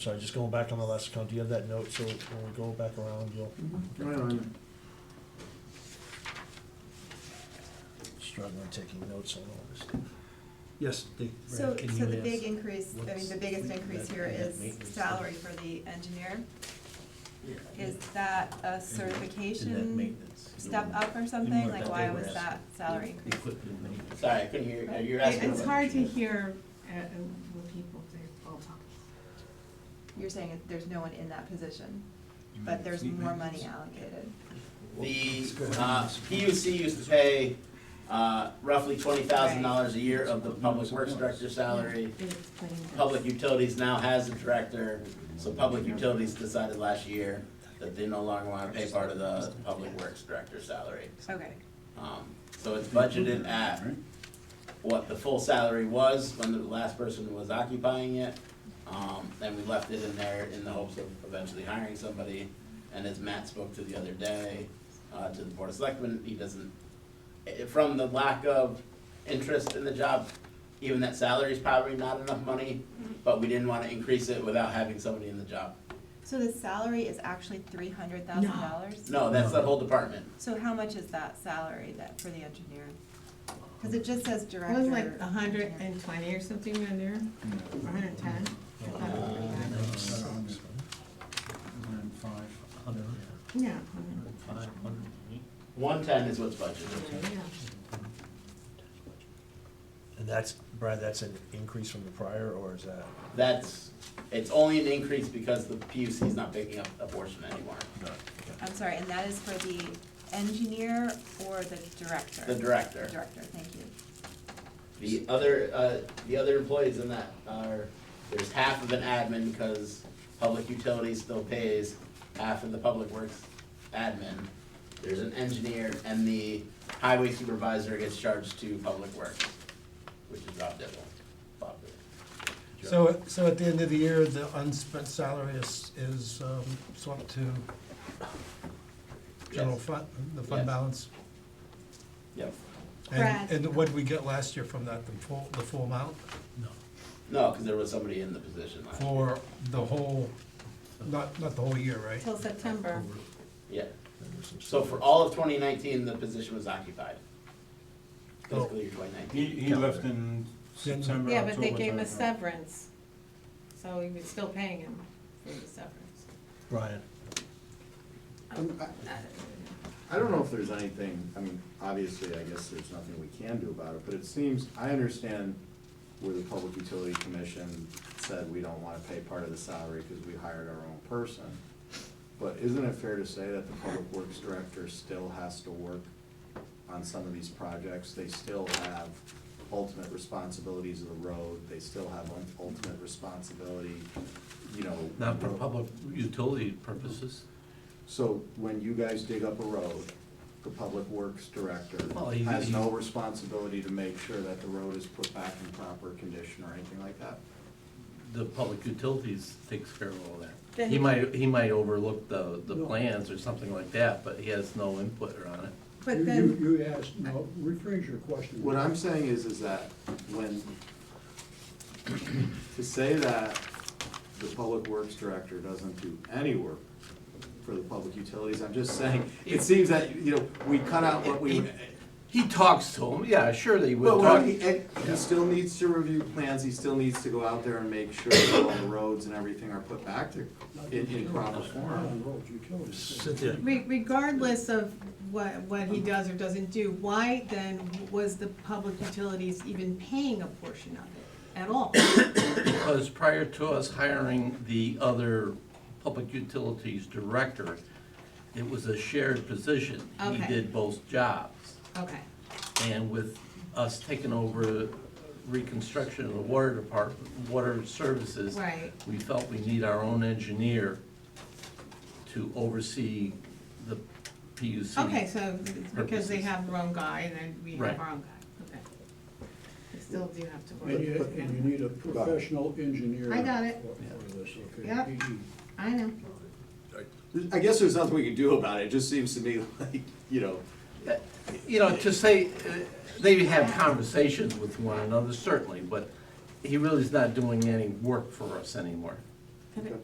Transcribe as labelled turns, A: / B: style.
A: Sorry, just going back on the last account, do you have that note, so when we go back around, you'll,
B: Wait a minute.
A: struggling taking notes on all this stuff.
B: Yes, Dick.
C: So,
D: Can
C: so
D: you
C: the
D: ask
C: big increase, I mean,
D: what's
C: the biggest
D: with
C: increase
D: that-
C: here
D: that
C: is
D: maintenance thing?
C: salary for the engineer. Is that a certification step up or something?
D: want
C: Like,
D: that
C: why
D: they were
C: was that
D: asking.
C: salary increase?
E: Sorry, I couldn't hear, you. you're asking.
F: It's
E: about-
F: hard to hear uh, uh, what people, they all talk.
C: You're saying that there's no one in that position, but there's more money allocated.
E: The, uh, PUC used to pay, uh, roughly twenty thousand dollars a year of the public works director's salary.
F: It explains it.
E: Public utilities now has a director, so public utilities decided last year that they no longer wanna pay part of the public works director's salary.
C: Okay,
E: Um, So it's budgeted at what the full salary was when the last person was occupying it. Um, Then we left it in there in the hopes of eventually hiring somebody. And as Matt spoke to the other day, uh, to the Board of Selectmen, he doesn't, eh, from the lack of interest in the job, even that salary is probably not enough money, but we didn't want to increase it without having somebody in the job.
C: so the salary is actually three hundred thousand dollars?
E: No, that's the whole department.
C: So how much is that salary that, for the engineer? Cause
D: Um,
C: it just says
F: It
C: director.
F: was like a hundred
C: engineer.
F: and twenty or something on there, or hundred and ten.
G: Uh,
E: Uh,
F: Yeah.
E: One-ten is what's budgeted.
F: Yeah.
A: And that's, Brad, that's an increase from the prior, or is that?
E: That's, it's only an increase because the PUC is not picking up a portion anymore.
C: I'm sorry, and that is for the engineer or the director?
E: The director.
C: Director, thank you.
E: The other, uh, the other employees in that are, there's half of an admin because public utilities still pays half of the public works admin. There's an engineer and the highway supervisor gets charged to public works, which is Rob Dibble. Bob Dibble.
G: So, so at the end of the year, the unspent salary is, is um, swapped to general
E: Yes.
G: fund, the
E: Yes.
G: fund balance?
E: Yep.
C: Brad.
G: And, and what did we get last year from that, the full, the full amount?
E: No, because there was somebody in the position last year.
G: For the whole, not, not the whole year, right?
F: Till September.
E: Yeah.
A: there was some
E: So for all of twenty nineteen, the position was occupied. Fiscal year twenty
H: He,
E: nineteen.
H: he left in September,
F: Yeah, but they
H: October
F: gave
H: time.
F: us severance, so we were still paying him for the severance.
A: Brian,
B: Um, I don't know if there's anything, I mean, obviously, I guess there's nothing we can do about it, but it seems, I understand where the Public Utility Commission said we don't wanna pay part of the salary because we hired our own person. But isn't it fair to say that the Public Works Director still has to work on some of these projects? They still have ultimate responsibilities of the road, they still have un- ultimate responsibility, you know.
D: Not for
B: road-
D: public utility purposes.
B: so when you guys dig up a road, the public works director
D: Well, he-
B: has
D: he-
B: no responsibility to make sure that the road is put back in proper condition or anything like that?
D: The public utilities takes care of all that.
F: Then-
D: He might, he might overlook the, the plans or something like that, but he has no input on it.
F: But
I: You-
F: then,
I: You, you asked, no, rephrase your question.
B: What I'm saying is, is that when, to say that the public works director doesn't do any work for the public utilities, I'm just saying, it seems that, you know, we cut out what we,
D: He talks to him, yeah, sure that he would
B: Well, well,
D: talk.
B: he, and he still needs to review plans, he still needs to go out there and make sure that all the roads and everything are put back to, in, in proper form.
I: On roads, utilities.
A: Cynthia.
F: re- regardless of what, what he does or doesn't do, why then was the public utilities even paying a portion of it at all?
D: Because prior to us hiring the other public utilities director, it was a shared position. He
F: Okay.
D: did both jobs.
F: Okay.
D: And with us taking over reconstruction of the water department, water services.
F: Right.
D: We felt we need our own engineer to oversee the PUC.
F: Okay, so it's because they
D: Purposes.
F: have their own guy and then we
D: Right.
F: have our own guy, okay. We still do have to
I: And you,
F: work.
I: and you need a professional engineer.
F: I got it.
I: for- For this, okay?
F: Yep.
I: He- he-
F: I know.
B: I guess there's nothing we can do about it, it just seems to me like, you know,
D: You know, to say, uh, they have conversations with one another, certainly, but he really is not doing any work for us anymore.
B: Could it-